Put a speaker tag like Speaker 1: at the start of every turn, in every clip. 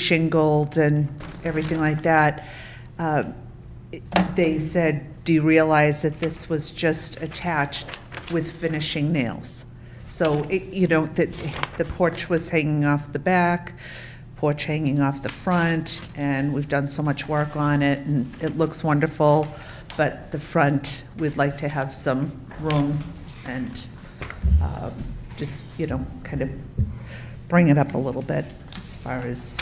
Speaker 1: reshingled and everything like that, uh, they said, do you realize that this was just attached with finishing nails? So, it- you know, the, the porch was hanging off the back, porch hanging off the front, and we've done so much work on it, and it looks wonderful, but the front, we'd like to have some room and um, just, you know, kind of bring it up a little bit as far as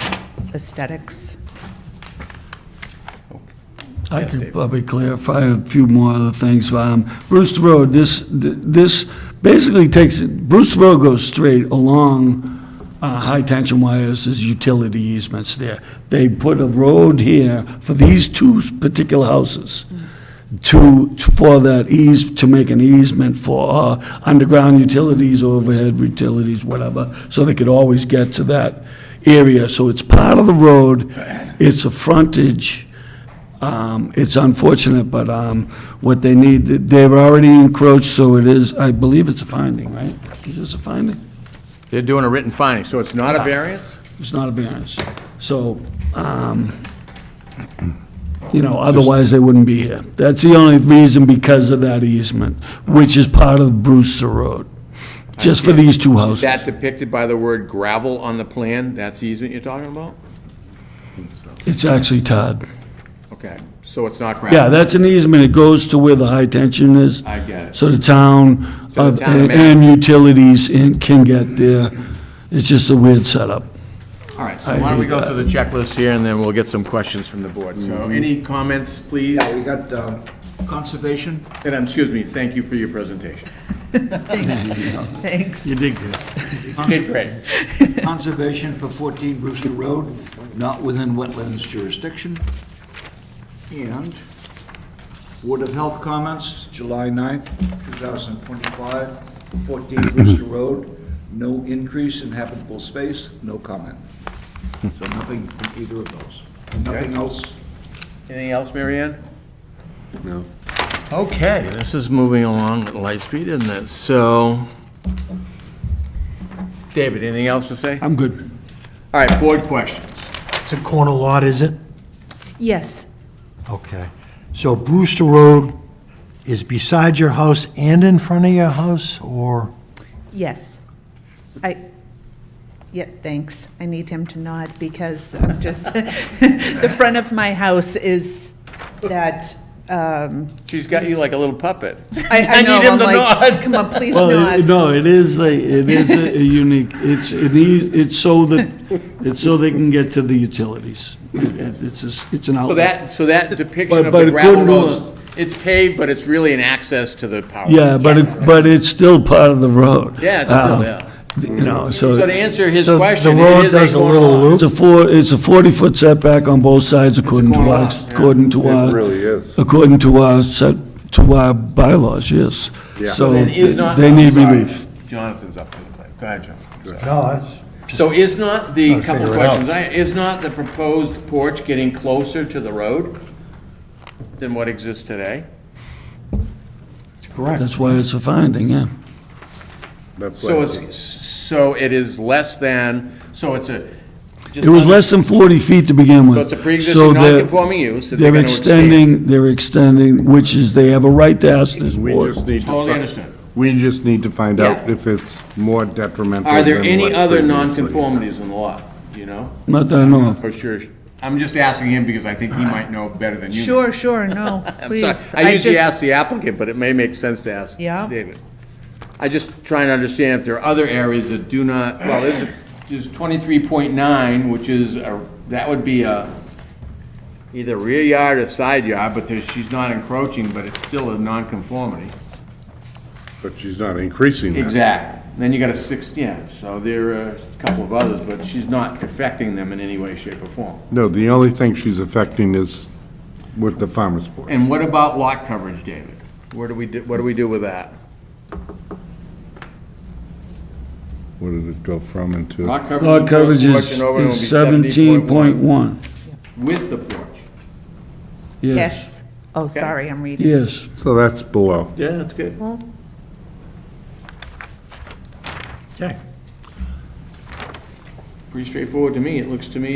Speaker 1: aesthetics.
Speaker 2: I
Speaker 3: Yes,
Speaker 2: could
Speaker 3: David.
Speaker 2: probably clarify a few more other things. Um, Brewster Road, this, th- this basically takes, Brewster Road goes straight along uh, high tension wires, there's utility easements there. They put a road here for these two s- particular houses to, for that ease, to make an easement for uh, underground utilities, overhead utilities, whatever, so they could always get to that area. So it's part of the road, it's a frontage. Um, It's unfortunate, but um, what they need, they've already encroached, so it is, I believe it's a finding, right? Is this a finding?
Speaker 3: They're doing a written finding, so it's not a variance?
Speaker 2: It's not a variance. So, um, you know, otherwise they wouldn't be here. That's the only reason because of that easement, which is part of Brewster Road, just for these two
Speaker 3: Is
Speaker 2: houses.
Speaker 3: that depicted by the word gravel on the plan? That's the easement you're talking about?
Speaker 2: It's actually Todd.
Speaker 3: Okay, so it's not gravel?
Speaker 2: Yeah, that's an easement. It goes to where the high tension is.
Speaker 3: I get it.
Speaker 2: So the town
Speaker 3: So
Speaker 2: uh,
Speaker 3: the town
Speaker 2: and and utilities in- can get there. It's just a weird setup.
Speaker 3: All right, so why don't we go through the checklist here, and then we'll get some questions from the board. So any comments, please?
Speaker 4: Yeah, we got um, conservation.
Speaker 3: And, um, excuse me, thank you for your presentation.
Speaker 1: Thanks.
Speaker 2: did good.
Speaker 3: Did great.
Speaker 4: Conservation for 14 Brewster Road, not within wetlands jurisdiction. And Board of Health comments, July 9th, 2025, 14 Brewster Road, no increase in habitable space, no comment. So nothing from either of those. Nothing else?
Speaker 3: Anything else, Mary Ann? No. Okay, this is moving along at light speed, isn't it? So, David, anything else to say?
Speaker 2: I'm good.
Speaker 3: All right, board questions.
Speaker 5: It's a corner lot, is it?
Speaker 1: Yes,
Speaker 5: Okay. So Brewster Road is beside your house and in front of your house, or?
Speaker 1: yes. I, yeah, thanks. I need him to nod because I'm just, the front of my house is that, um,
Speaker 3: She's got you like a little puppet.
Speaker 1: I, I know,
Speaker 3: need him
Speaker 1: I'm
Speaker 3: to
Speaker 1: like,
Speaker 3: nod.
Speaker 1: come on, please
Speaker 2: Well, it-
Speaker 1: nod.
Speaker 2: no, it is a, it is a a unique, it's, it is, it's so that, it's so they can get to the utilities. It- It's, a s- it's an
Speaker 3: So
Speaker 2: outlet.
Speaker 3: that, so that depiction
Speaker 2: But-
Speaker 3: of
Speaker 2: but
Speaker 3: the
Speaker 2: it
Speaker 3: gravel
Speaker 2: couldn't do
Speaker 3: roads, it's paved, but it's really an access to the power.
Speaker 2: Yeah, but it,
Speaker 1: Yes.
Speaker 2: but it's still part of the road.
Speaker 3: Yeah, it's still,
Speaker 2: Um,
Speaker 3: yeah.
Speaker 2: You know, so.
Speaker 3: So to answer his
Speaker 5: The-
Speaker 3: question,
Speaker 5: The
Speaker 3: it
Speaker 5: road
Speaker 3: is a
Speaker 5: does a
Speaker 3: corner
Speaker 5: little
Speaker 3: lot.
Speaker 5: loop.
Speaker 2: It's a four, it's a 40-foot setback on both sides according to
Speaker 3: corner
Speaker 2: our,
Speaker 3: lot, yeah.
Speaker 2: according to our.
Speaker 6: really is.
Speaker 2: According to our set, to our bylaws, yes. So
Speaker 3: Then is not-
Speaker 2: they need
Speaker 3: sorry,
Speaker 2: relief.
Speaker 3: Jonathan's up to the plate. Go ahead, Jonathan. Sorry.
Speaker 5: No, that's,
Speaker 3: So is not the,
Speaker 5: Gotta
Speaker 3: couple
Speaker 5: figure it
Speaker 3: questions,
Speaker 5: out.
Speaker 3: I- is not the proposed porch getting closer to the road than what exists today?
Speaker 5: correct.
Speaker 2: That's why it's a finding, yeah.
Speaker 6: That's
Speaker 3: So
Speaker 6: why,
Speaker 3: it's, so it is less than, so it's a. just
Speaker 2: It was
Speaker 3: under-
Speaker 2: less than 40 feet to begin with.
Speaker 3: So it's a pre-existing
Speaker 2: So they're-
Speaker 3: non-conforming use that they're gonna extend.
Speaker 2: extending, they're extending, which is, they have a right to ask this
Speaker 6: we
Speaker 2: board.
Speaker 6: just need to.
Speaker 3: Totally
Speaker 6: fi-
Speaker 3: understood.
Speaker 6: We just need to find out
Speaker 3: Yeah.
Speaker 6: if it's more detrimental.
Speaker 3: Are there
Speaker 6: than
Speaker 3: any
Speaker 6: what
Speaker 3: other
Speaker 6: previously.
Speaker 3: nonconformities in the lot, do you know?
Speaker 2: Not that I know of.
Speaker 3: For sure, I'm just asking him because I think he might know better than you. might.
Speaker 1: Sure, sure, no,
Speaker 3: I'm sorry.
Speaker 1: please.
Speaker 3: I usually
Speaker 1: just-
Speaker 3: ask the applicant, but it may make sense to ask
Speaker 1: Yeah.
Speaker 3: David. I just trying to understand if there are other areas that do not, well, there's, there's twenty-three point nine, which is, a- that would be a, either rear yard or side yard, but there's, she's not encroaching, but it's still a nonconformity.
Speaker 6: But she's not increasing that.
Speaker 3: Exactly. Then you got a six, yeah, so there are a couple of others, but she's not affecting them in any way, shape, or form.
Speaker 6: No, the only thing she's affecting is with the farmer's board.
Speaker 3: And what about lot coverage, David? Where do we, do- what do we do with that?
Speaker 6: What does it go from and to?
Speaker 3: Lot coverage.
Speaker 2: Lot coverage
Speaker 3: porch
Speaker 2: is
Speaker 3: and overhang will be
Speaker 2: is 17.1,
Speaker 3: With the porch.
Speaker 2: yes,
Speaker 1: Yes. Oh, sorry, I'm reading.
Speaker 2: yes.
Speaker 6: So that's below.
Speaker 3: Yeah, that's good.
Speaker 5: Okay.
Speaker 3: Pretty straightforward to me. It looks to me